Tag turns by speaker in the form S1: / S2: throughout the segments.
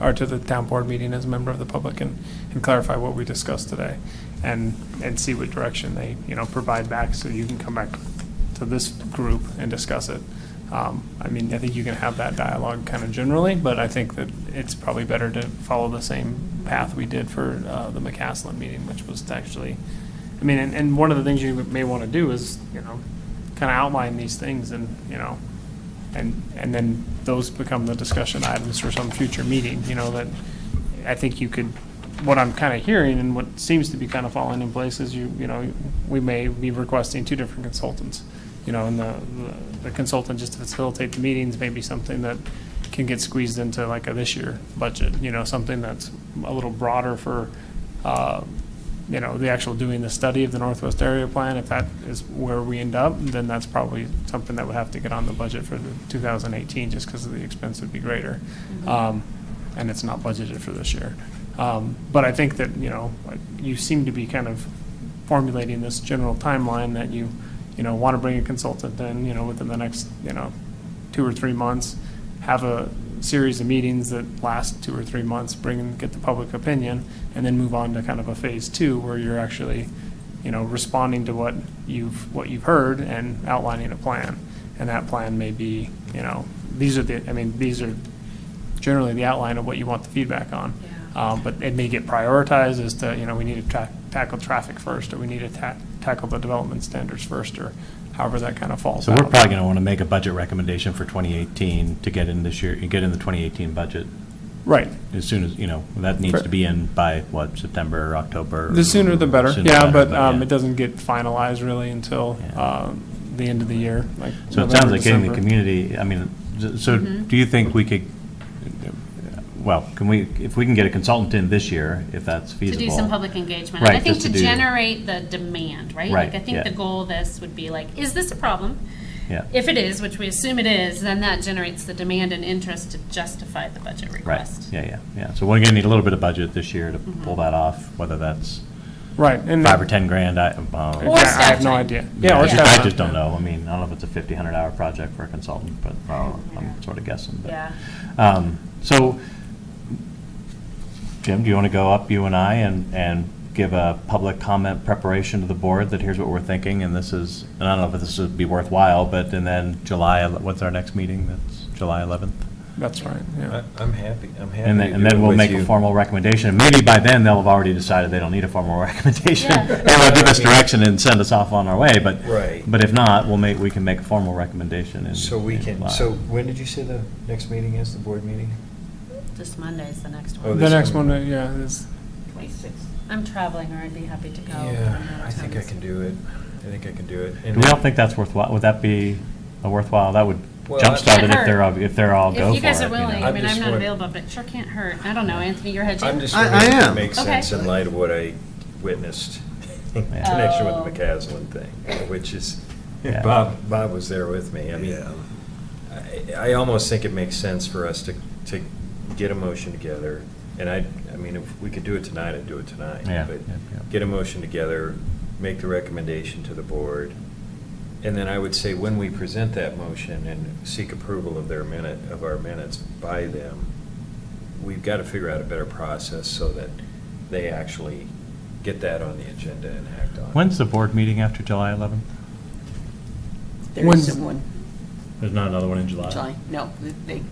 S1: or to the town board meeting as a member of the public and, and clarify what we discussed today and, and see what direction they, you know, provide back so you can come back to this group and discuss it. Um, I mean, I think you can have that dialogue kind of generally, but I think that it's probably better to follow the same path we did for uh, the McCaslin meeting, which was to actually, I mean, and, and one of the things you may want to do is, you know, kind of outline these things and, you know, and, and then those become the discussion items for some future meeting, you know, that I think you could, what I'm kind of hearing and what seems to be kind of falling in place is you, you know, we may be requesting two different consultants. You know, and the, the consultant just to facilitate the meetings may be something that can get squeezed into like a this year budget, you know, something that's a little broader for, uh, you know, the actual doing the study of the Northwest Area Plan, if that is where we end up, then that's probably something that would have to get on the budget for the 2018, just because of the expense would be greater. Um, And it's not budgeted for this year. Um, But I think that, you know, like, you seem to be kind of formulating this general timeline that you, you know, want to bring a consultant in, you know, within the next, you know, two or three months, have a series of meetings that last two or three months, bring and get the public opinion, and then move on to kind of a phase two where you're actually, you know, responding to what you've, what you've heard and outlining a plan. And that plan may be, you know, these are the, I mean, these are generally the outline of what you want the feedback on. Um, But it may get prioritized as to, you know, we need to tra- tackle traffic first, or we need to ta- tackle the development standards first, or however that kind of falls
S2: So
S1: out.
S2: we're probably going to want to make a budget recommendation for 2018 to get in this year, get in the 2018 budget
S1: Right.
S2: as soon as, you know, that needs to be in by, what, September, or October?
S1: The sooner the better,
S2: Sooner
S1: yeah, but um,
S2: yeah.
S1: it doesn't get finalized really until
S2: Yeah.
S1: um, the end of the year, like
S2: So it sounds
S1: November,
S2: like getting the
S1: December.
S2: community, I mean, so
S3: Mm-hmm.
S2: do you think we could, well, can we, if we can get a consultant in this year, if that's
S3: To
S2: feasible?
S3: do some public engagement. And
S2: Right,
S3: I think
S2: just
S3: to
S2: to do-
S3: generate the demand, right?
S2: Right,
S3: Like, I
S2: yeah.
S3: think the goal of this would be like, is this a problem?
S2: Yeah.
S3: If it is, which we assume it is, then that generates the demand and interest to justify the budget
S2: Right,
S3: request.
S2: yeah, yeah, yeah. So we're going to need a little bit of budget this year to
S3: Mm-hmm.
S2: pull that off, whether that's
S1: Right. and-
S2: five or 10 grand, I, uh,
S1: Yeah,
S2: well.
S3: Or
S1: I have
S3: staff
S1: no
S3: time.
S1: idea. Yeah, or
S2: I just-
S1: staff
S2: I
S1: time,
S2: just don't
S1: yeah.
S2: know. I mean, I don't know if it's a 50, 100-hour project for a consultant, but well, I'm sort of guessing. but-
S3: Yeah.
S2: Um, So, Jim, do you want to go up, you and I, and, and give a public comment preparation to the board that here's what we're thinking, and this is, and I don't know if this would be worthwhile, but, and then July, ele- what's our next meeting? That's July 11th?
S1: That's right, yeah.
S4: I- I'm happy, I'm happy.
S2: And
S4: to
S2: then,
S4: do
S2: and then
S4: it
S2: we'll
S4: with
S2: make
S4: you.
S2: a formal recommendation, and maybe by then, they'll have already decided they don't need a formal recommendation.
S3: Yeah.
S2: And they'll give us direction and send us off on our way, but.
S4: Right.
S2: But if not, we'll make, we can make a formal recommendation in.
S4: So we
S2: in
S4: can,
S2: July.
S4: so when did you say the next meeting is, the board meeting?
S3: Just Monday is the next
S4: Oh,
S3: one.
S1: The
S4: this
S1: next one,
S4: coming-
S1: uh, yeah, is,
S3: I'm traveling, or I'd be happy to go. but I'm out
S4: Yeah,
S3: of
S4: I think
S3: town.
S4: I can do it, I think I can do it.
S2: Do we all think that's worthwhile? Would that be a worthwhile, that would
S4: Well,
S2: jumpstart it
S3: Can't
S2: if they're, all-
S3: hurt.
S2: if they're all go for it?
S3: If you guys are
S2: know?
S3: willing, I
S4: I'm
S3: mean, I'm
S4: just
S3: not
S4: wor-
S3: available, but it sure can't hurt. I don't know, Anthony, you're hedging.
S4: I'm just
S5: I-
S4: wondering
S5: I
S4: if it
S5: am.
S4: makes
S3: Okay.
S4: sense in light of what I witnessed in
S2: Yeah.
S4: connection with
S3: Oh.
S4: the McCaslin thing, which is,
S2: Yeah.
S4: Bob, Bob was there with me. I mean, I, I almost think it makes sense for us to, to get a motion together. And I, I mean, if we could do it tonight, I'd do it tonight.
S2: Yeah,
S4: But
S2: yeah, yeah.
S4: Get a motion together, make the recommendation to the board. And then I would say, when we present that motion and seek approval of their minute, of our minutes by them, we've got to figure out a better process so that they actually get that on the agenda and act on it.
S2: When's the board meeting after July 11th?
S6: There
S1: When's-
S6: isn't one,
S2: There's not another one in July?
S6: July, no, they,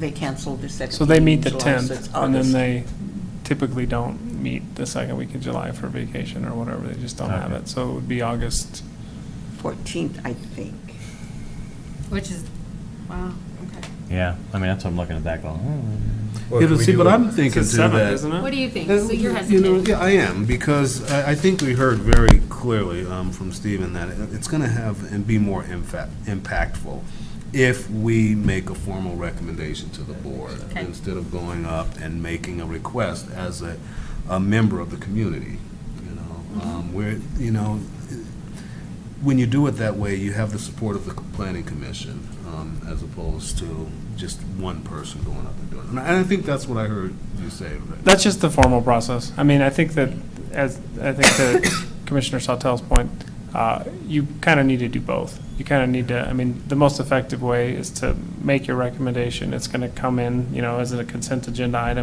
S6: they canceled the second.
S1: so they meet
S6: meeting
S1: the
S6: in July, so
S1: 10th,
S6: it's
S1: and then
S6: August.
S1: they typically don't meet the second week of July for vacation or whatever, they just don't have
S2: Okay.
S1: it. So it would be August,
S6: 14th, I think.
S3: Which is, wow, okay.
S2: Yeah, I mean, that's what I'm looking at that going, hmm.
S4: Well,
S5: Yeah, but
S4: we
S5: see,
S4: do
S5: but
S4: it-
S5: I'm thinking
S1: it's
S5: to
S1: seventh,
S5: that.
S1: isn't it?
S3: What do you think?
S5: Uh,
S3: So you're
S5: you know,
S3: hesitating.
S5: Yeah, I am, because I, I think we heard very clearly um, from Stephen that it- it's going to have and be more infa- impactful if we make a formal recommendation to the board,
S3: Okay.
S5: instead of going up and making a request as a, a member of the community, you
S3: Mm-hmm.
S5: know? Um, Where, you know, when you do it that way, you have the support of the planning commission, um, as opposed to just one person going up and doing it. And I think that's what I heard you say, Rick.
S1: That's just the formal process. I mean, I think that, as, I think to Commissioner Sautel's point, uh, you kind of need to do both. You kind of need to, I mean, the most effective way is to make your recommendation. It's going to come in, you know, as a consent agenda item,